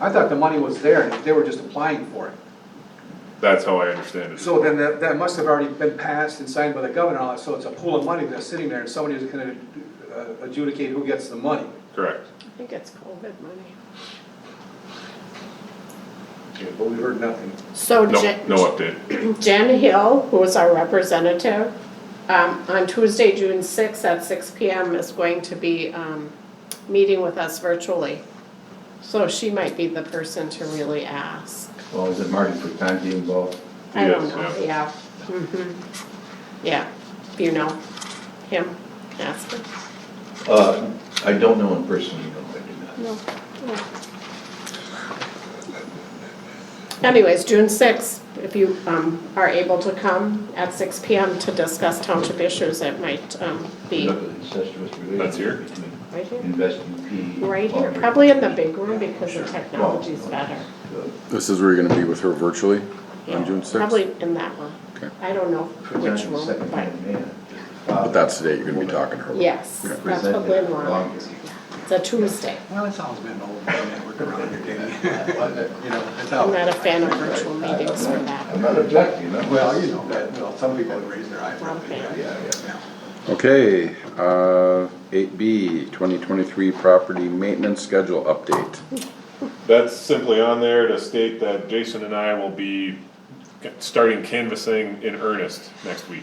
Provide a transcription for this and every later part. I thought the money was there, and they were just applying for it. That's how I understand it. So then that, that must have already been passed and signed by the governor, and all that, so it's a pool of money that's sitting there, and somebody is gonna uh, adjudicate who gets the money. Correct. I think it's COVID money. But we heard nothing. So No, Jen, no update. Jen Hill, who is our representative, um, on Tuesday, June sixth at six P M is going to be, um, meeting with us virtually. So she might be the person to really ask. Well, is it Marty Fratanti involved? I don't Yes, know, yeah. Mhm. Yeah, you know him, ask him. Uh, I don't know him personally, no, I do not. No, no. Anyways, June sixth, if you um, are able to come at six P M to discuss township issues, it might um, be Look at incestuous relationship That's here? between right here. Investing P. Right here, probably in the big room because the technology's better. This is where you're gonna be with her virtually Yeah, on June sixth? Probably in that one. Okay. I don't know which Presenting room, but second-hand man. Uh, But that's the date you're gonna be talking to her. yes, Okay. that's what Lynn wanted. It's a Tuesday. Well, it's always been old, network around here, uh, You know, it's I'm not a fan of virtual meetings for I'm that. not objecting, I'm. Well, you know, that, well, some people would raise their eyebrows. Okay. Yeah, Yeah, yeah. yeah. Okay, uh, eight B, twenty twenty-three property maintenance schedule update. That's simply on there to state that Jason and I will be starting canvassing in earnest next week.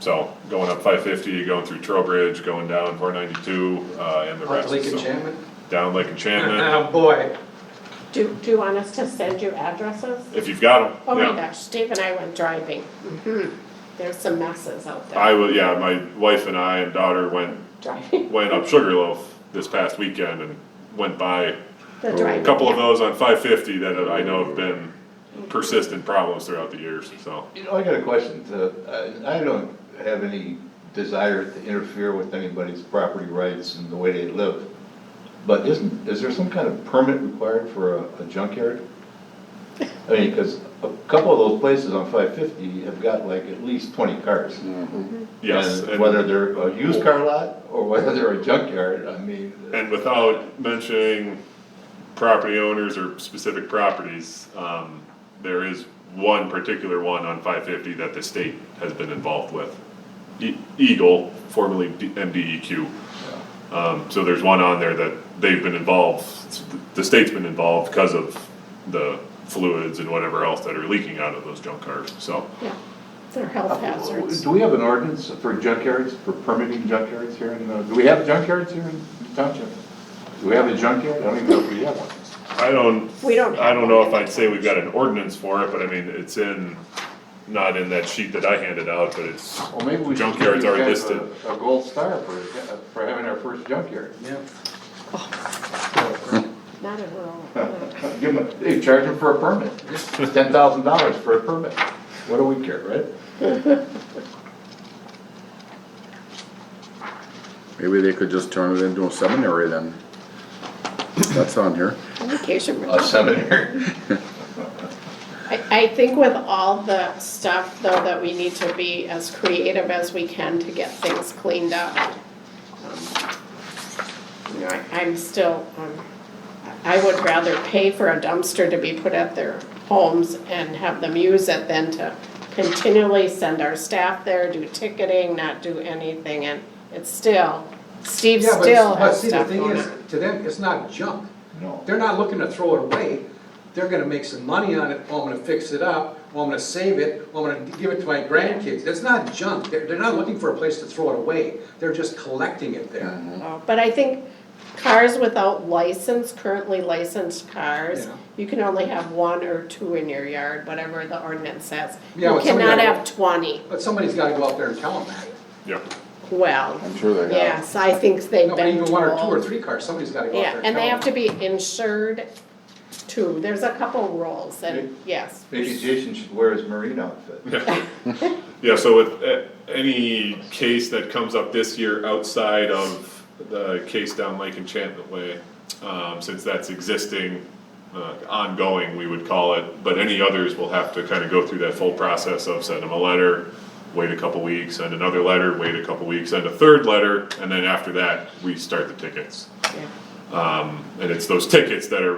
So going up five fifty, going through Trowbridge, going down four ninety-two, uh, and the rest. Lake So, Enchantment? Down Lake Enchantment, Oh, boy. Do, do you want us to send you addresses? if you've got Oh them, my yeah. gosh, Dave and I went driving. There's some messes out there I will, yeah, my wife and I and daughter went, driving. went up Sugarloaf this past weekend and went by The a driving. couple of those on five fifty that I know have been persistent problems throughout the years, so. You know, I got a question, so, uh, I don't have any desire to interfere with anybody's property rights and the way they live. But isn't, is there some kind of permit required for a a junkyard? I mean, because a couple of those places on five fifty have got like at least twenty cars. Yes. And and- Whether they're a used car lot or whether they're a junkyard, I mean. And without mentioning property owners or specific properties, um, there is one particular one on five fifty that the state has been involved with. E- Eagle, formerly D- MDEQ. Um, so there's one on there that they've been involved, the state's been involved because of the fluids and whatever else that are leaking out of those junk cars, so. Yeah, they're health hazards. Do we have an ordinance for junkyards, for permitting junkyards here in, the- do we have junkyards here in the township? Do we have a junkyard? I don't even know if we have one. I don't, We don't I have don't know one. if I'd say we've got an ordinance for it, but I mean, it's in, not in that sheet that I handed out, but it's, Well, maybe we should give Junkyards these are guys listed. a, a gold star for, for having our first junkyard. Not at all. Give them, they charge them for a permit, ten thousand dollars for a permit, what do we care, right? Maybe they could just turn it into a seminary then. That's on here. Communication. A seminary. I, I think with all the stuff though, that we need to be as creative as we can to get things cleaned up. Um, You know, I, I'm still, um, I I would rather pay for a dumpster to be put at their homes and have them use it than to continually send our staff there, do ticketing, not do anything, and it's still, Steve Yeah, but- still But has see, the stuff thing going is, on. to them, it's not junk. No. They're not looking to throw it away. They're gonna make some money on it, oh, I'm gonna fix it up, oh, I'm gonna save it, oh, I'm gonna give it to my grandkids. That's not junk. They're, they're not looking for a place to throw it away. They're just collecting it there. Oh, But I think cars without license, currently licensed cars, Yeah. you can only have one or two in your yard, whatever the ordinance says. Yeah, You but somebody cannot gotta- have twenty. But somebody's gotta go out there and tell them that. yeah. Well, I'm sure they have. yes, I think they've No, but been even one or two or told. three cars, somebody's gotta go out Yeah, there and tell them. and they have to be insured too. There's a couple rules and, yes. Maybe Jason should wear his marine outfit. Yeah, so with uh, any case that comes up this year outside of the case down Lake Enchantment Way, um, since that's existing, uh, ongoing, we would call it, but any others will have to kind of go through that full process of send them a letter, wait a couple weeks, send another letter, wait a couple weeks, send a third letter, and then after that, we start the tickets. Yeah. Um, and it's those tickets that are